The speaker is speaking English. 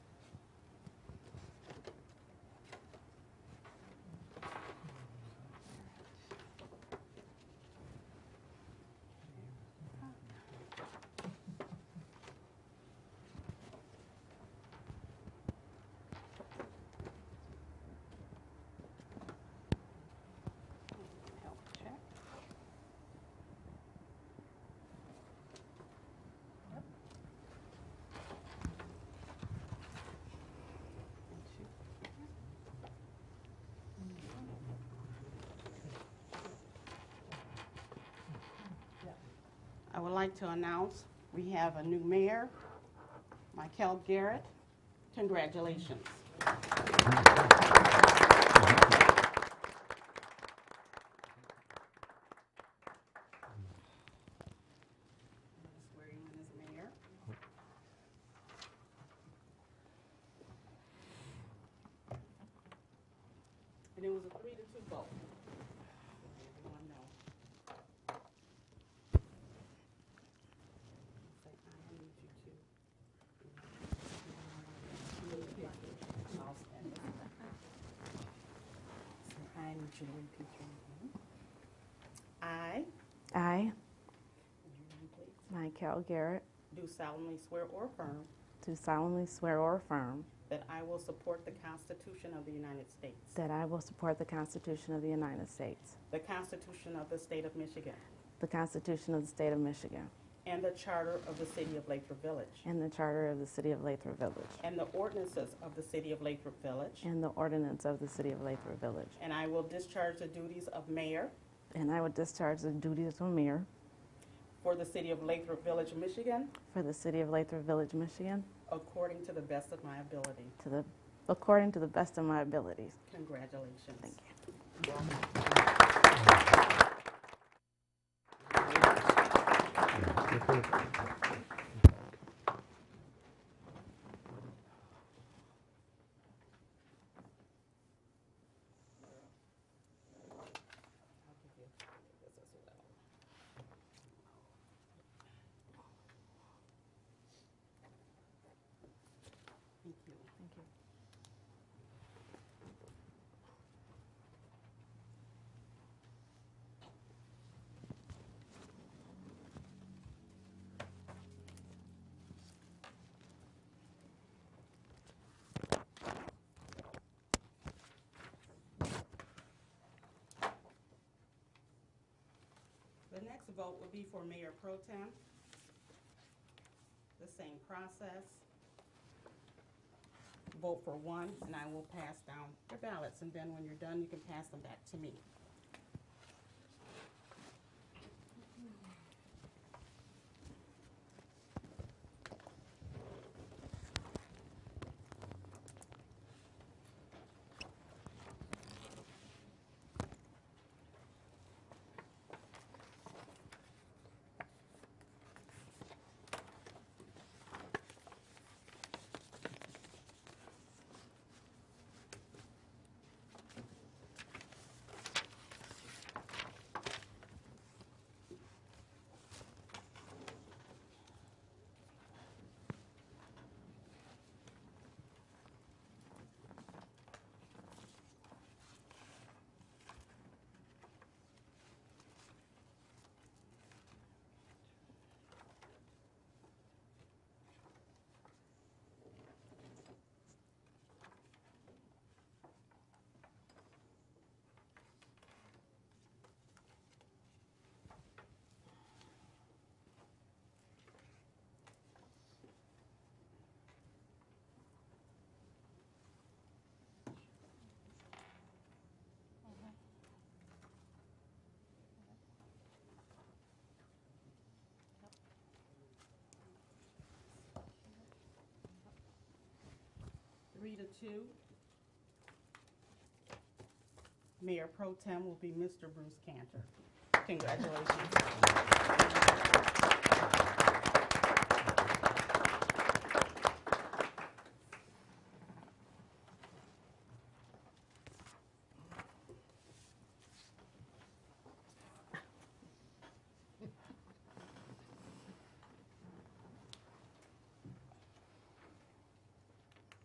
would like to announce we have a new mayor, Michael Garrett. Congratulations. Swear you in as mayor. And it was a three to two vote. Everyone know. Say, I need you to. I'll stand up. Say, I need you to repeat your name. I, I, and your name, please, Michael Garrett, do solemnly swear or affirm do solemnly swear or affirm that I will support the Constitution of the United States, that I will support the Constitution of the United States, the Constitution of the State of Michigan, the Constitution of the State of Michigan, and the Charter of the City of Lathrop Village, and the Charter of the City of Lathrop Village, and the ordinances of the City of Lathrop Village, and the ordinance of the City of Lathrop Village. and I will discharge the duties of mayor And I will discharge the duties of mayor for the City of Lathrop Village, Michigan, for the City of Lathrop Village, Michigan, according to the best of my ability. to the, according to the best of my abilities. Congratulations. Thank you. I'll give you this as well. Thank you. Thank you. The next vote will be for Mayor Pro Tem. The same process. Vote for one, and I will pass down your ballots, and then when you're done, you can pass them back to me. Three to two. Mayor Pro Tem will be Mr. Bruce Cantor. Congratulations.